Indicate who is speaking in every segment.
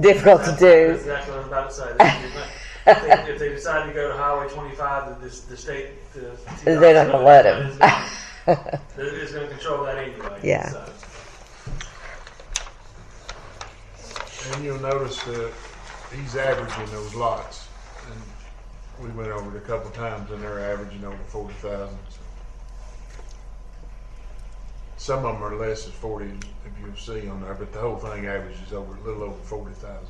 Speaker 1: difficult to
Speaker 2: That's
Speaker 1: do.
Speaker 2: exactly what I was about to say. If they- If they decide to go to Highway twenty-five, then this, the state, the.
Speaker 1: They're not gonna let him.
Speaker 2: It's gonna control that anyway.
Speaker 1: Yeah.
Speaker 2: so.
Speaker 3: And you'll notice that he's averaging those lots. And we went over it a couple times and they're averaging over forty thousand. Some of them are less than forty, if you'll see on there, but the whole thing averages over, a little over forty thousand.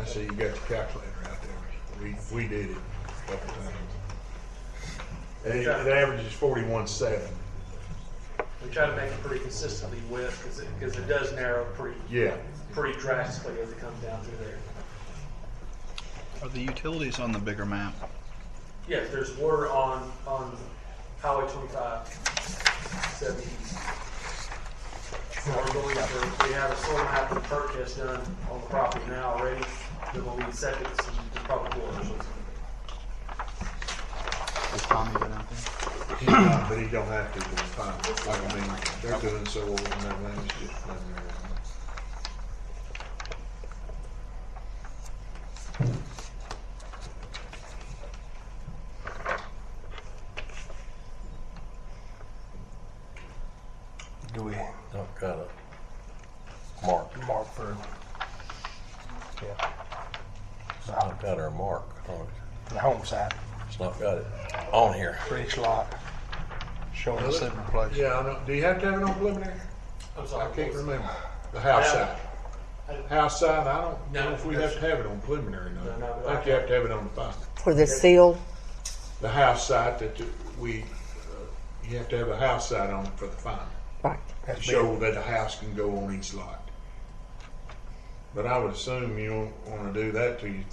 Speaker 3: I see you got your calculator out there. We, we did it a couple times. And it, it averages forty-one seven.
Speaker 2: We try to make it pretty consistently with, because it, because it does narrow pretty,
Speaker 3: Yeah.
Speaker 2: pretty drastically as it comes down through there.
Speaker 4: Are the utilities on the bigger map?
Speaker 2: Yes, there's water on, on Highway twenty-five, seventy. So we're going for, we have a soil map and perk test done on the property now already, then we'll need septic and the public water.
Speaker 4: Is Tommy been out there?
Speaker 3: Uh, But he don't have to, it's fine. Like, I mean, they're doing so well and everything, it's just letting everyone.
Speaker 5: Do we? I'll try to mark. Mark for. Yeah. It's not got our mark. on it.
Speaker 6: the home side
Speaker 5: It's not got it on here.
Speaker 6: for each lot, showing the separate place.
Speaker 3: Yeah, I know, do you have to have it on preliminary?
Speaker 2: I'm
Speaker 3: I
Speaker 2: sorry.
Speaker 3: can't remember. The house side. House side, I don't
Speaker 2: No.
Speaker 3: know if we have to have it on preliminary,
Speaker 2: No, no,
Speaker 3: no.
Speaker 2: but
Speaker 3: I
Speaker 2: I-
Speaker 3: think you have to have it on the file.
Speaker 1: For the seal,
Speaker 3: The house side that you- we, uh, you have to have a house side on it for the final.
Speaker 1: right,
Speaker 3: To
Speaker 6: That's
Speaker 3: show that a house can go on each lot. But I would assume you don't wanna do that till you,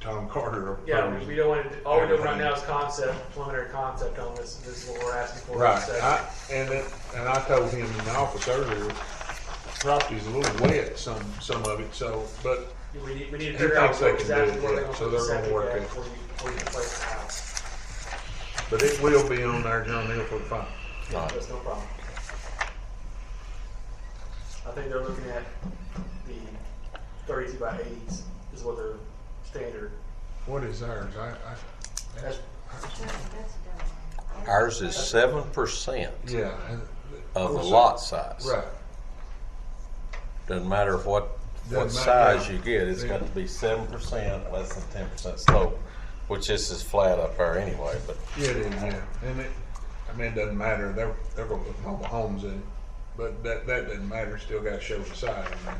Speaker 3: Tom Carter.
Speaker 2: Yeah,
Speaker 3: approves
Speaker 2: we-
Speaker 3: it.
Speaker 2: we don't want to, all we're doing right now is concept, preliminary concept on this, this is what we're asking for.
Speaker 3: Right,
Speaker 2: So,
Speaker 3: I, and it, and I told him in the office earlier, property's a little wet, some, some of it, so, but
Speaker 2: We need, we need to
Speaker 3: He
Speaker 2: figure out
Speaker 3: thinks they can
Speaker 2: exactly
Speaker 3: do it,
Speaker 2: where they're
Speaker 3: yeah,
Speaker 2: going to put
Speaker 3: so
Speaker 2: the
Speaker 3: they're gonna
Speaker 2: septic
Speaker 3: work
Speaker 2: at
Speaker 3: it.
Speaker 2: before you, before you place the house.
Speaker 3: But it will be on there, John Hill, for the final.
Speaker 2: That's Oh, no problem. I think they're looking at the thirty-two by eighties is what their standard.
Speaker 3: What is ours? I, I,
Speaker 2: That's,
Speaker 5: Ours is seven percent
Speaker 3: yeah.
Speaker 5: of the
Speaker 3: course,
Speaker 5: lot size.
Speaker 3: Right,
Speaker 5: Doesn't matter if what, what
Speaker 3: Doesn't matter.
Speaker 5: size you get, it's got to be seven percent, less than ten percent slope, which this is flat up there anyway, but
Speaker 3: yeah, it is, yeah, and it, I mean, it doesn't matter, they're, they're gonna put mobile homes in, but that, that doesn't matter, still gotta show the size, I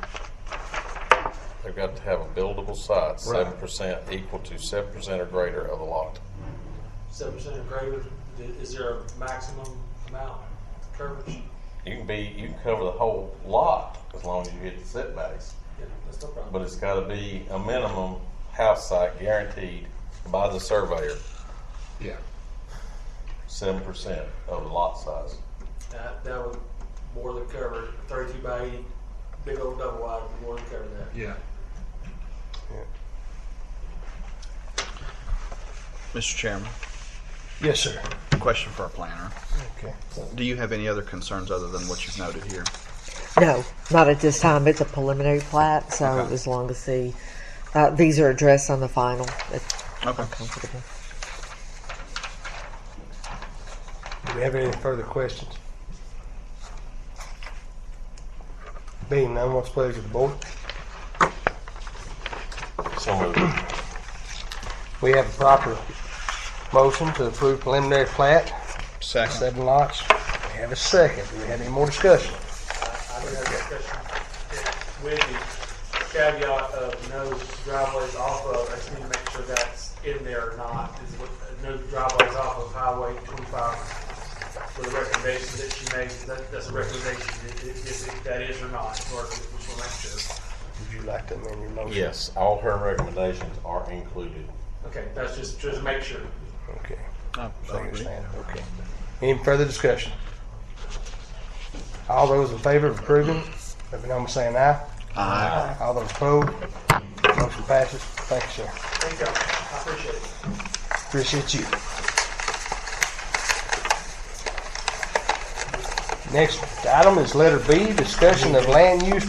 Speaker 3: mean.
Speaker 5: they've got to have a buildable site,
Speaker 3: Right.
Speaker 5: seven percent equal to seven percent or greater of the lot.
Speaker 2: seven percent or greater, Th- is there a maximum amount coverage?
Speaker 5: You can be, you can cover the whole lot as long as you hit the setbacks,
Speaker 2: Yeah, that's no problem.
Speaker 5: but it's gotta be a minimum house site guaranteed by the surveyor,
Speaker 3: Yeah,
Speaker 5: seven percent of the lot size.
Speaker 2: That, that would more than cover thirty-two by eighty, big old double wide, would more than cover that.
Speaker 3: yeah.
Speaker 4: Mr. Chairman,
Speaker 6: Yes, sir.
Speaker 4: question for our planner.
Speaker 6: Okay.
Speaker 4: Do you have any other concerns other than what you've noted here?
Speaker 1: no, not at this time, it's a preliminary plat, so as long as the, uh, these are addressed on the final, it's
Speaker 4: Okay.
Speaker 1: comfortable.
Speaker 6: Do we have any further questions? Being none, what's the pleasure of the board?
Speaker 5: So moved.
Speaker 6: We have a proper motion to approve preliminary plat,
Speaker 4: Second.
Speaker 6: seven lots. We have a second. Do we have any more discussion?
Speaker 2: I did have a discussion with the caveat of no driveways off of, I just need to make sure that's in there or not, is what, no driveways off of Highway twenty-five for the recommendations that she made, that, that's a recommendation, if, if, if that is or not, or if we should make sure.
Speaker 6: Would you like to amend your motion?
Speaker 5: Yes, all her recommendations are included.
Speaker 2: Okay, that's just, just to make sure.
Speaker 6: Okay.
Speaker 4: I
Speaker 6: So you're
Speaker 4: agree.
Speaker 6: saying, Okay. Any further discussion? All those in favor of approving, let me know by saying aye.
Speaker 4: Aye.
Speaker 6: All those opposed, motion passes. Thank you, sir.
Speaker 2: Thank you, I appreciate it.
Speaker 6: Appreciate you. Next item is letter B, discussion of land use